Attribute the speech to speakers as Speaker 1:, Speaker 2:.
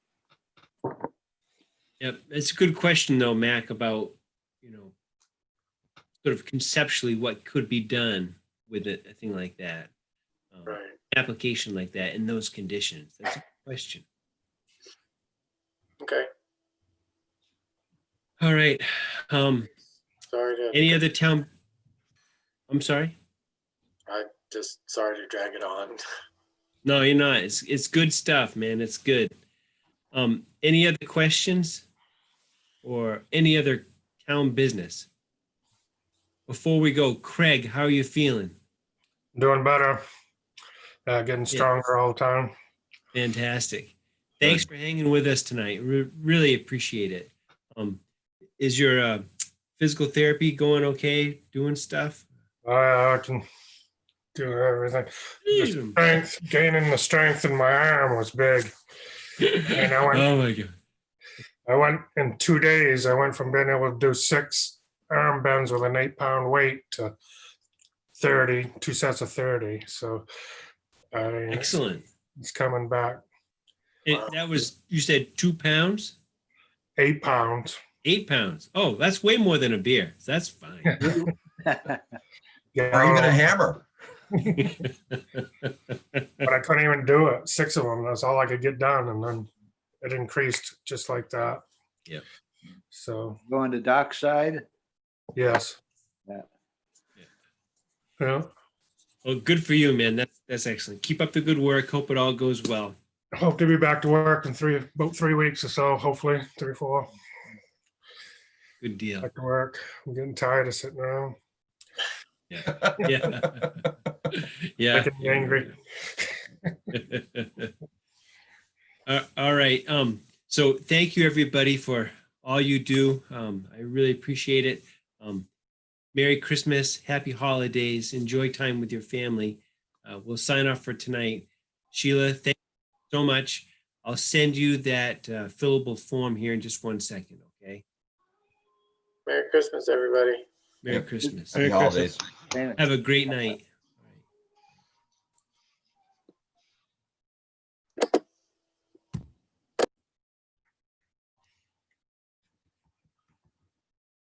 Speaker 1: Yep, it's a good question though, Mac, about, you know, sort of conceptually what could be done with a, a thing like that. um,
Speaker 2: Right.
Speaker 1: Application like that in those conditions. That's a good question.
Speaker 2: Okay.
Speaker 1: All right. Um,
Speaker 2: Sorry to
Speaker 1: any other town? I'm sorry?
Speaker 2: just sorry to drag it on.
Speaker 1: No, you're not. It's, it's good stuff, man. It's good. Um, any other questions? Or any other town business? Before we go, Craig, how are you feeling?
Speaker 3: Doing better. Uh, getting stronger all the time.
Speaker 1: Fantastic. Thanks for hanging with us tonight. Re- really appreciate it. Um, is your uh, physical therapy going okay? Doing stuff?
Speaker 3: I, I can do everything.
Speaker 1: Hmm.
Speaker 3: The strength, gaining the strength in my arm was big. And I went,
Speaker 1: Oh my god!
Speaker 3: I went in two days. I went from being able to do six arm bends with an eight pound weight to 30, two sets of 30. So I,
Speaker 1: Excellent.
Speaker 3: it's coming back
Speaker 1: It, that was you said two pounds,
Speaker 3: eight pounds.
Speaker 1: eight pounds. Oh, that's way more than a beer. That's fine.
Speaker 3: Yeah,
Speaker 4: Or even a hammer.
Speaker 3: but I couldn't even do it. Six of them. That's all I could get done, and then it increased just like that.
Speaker 1: Yep.
Speaker 3: So
Speaker 5: Going to dockside?
Speaker 3: yes.
Speaker 5: Yeah.
Speaker 3: Yeah.
Speaker 1: Well, good for you, man. That's that's excellent. Keep up the good work. Hope it all goes well.
Speaker 3: Hope to be back to work in three about three weeks or so. Hopefully, three or four.
Speaker 1: Good deal.
Speaker 3: Back to work. I'm getting tired of sitting around.
Speaker 1: Yeah. yeah.
Speaker 3: Making me angry.
Speaker 1: Uh, All right. Um, so thank you everybody for all you do. Um, I really appreciate it. Um, Merry Christmas, happy holidays, enjoy time with your family. Uh, we'll sign off for tonight. Sheila, thank you so much. I'll send you that uh, fillable form here in just one second, okay?
Speaker 2: Merry Christmas, everybody.
Speaker 1: Merry Christmas.
Speaker 4: Happy holidays.
Speaker 5: Damn it.
Speaker 1: Have a great night.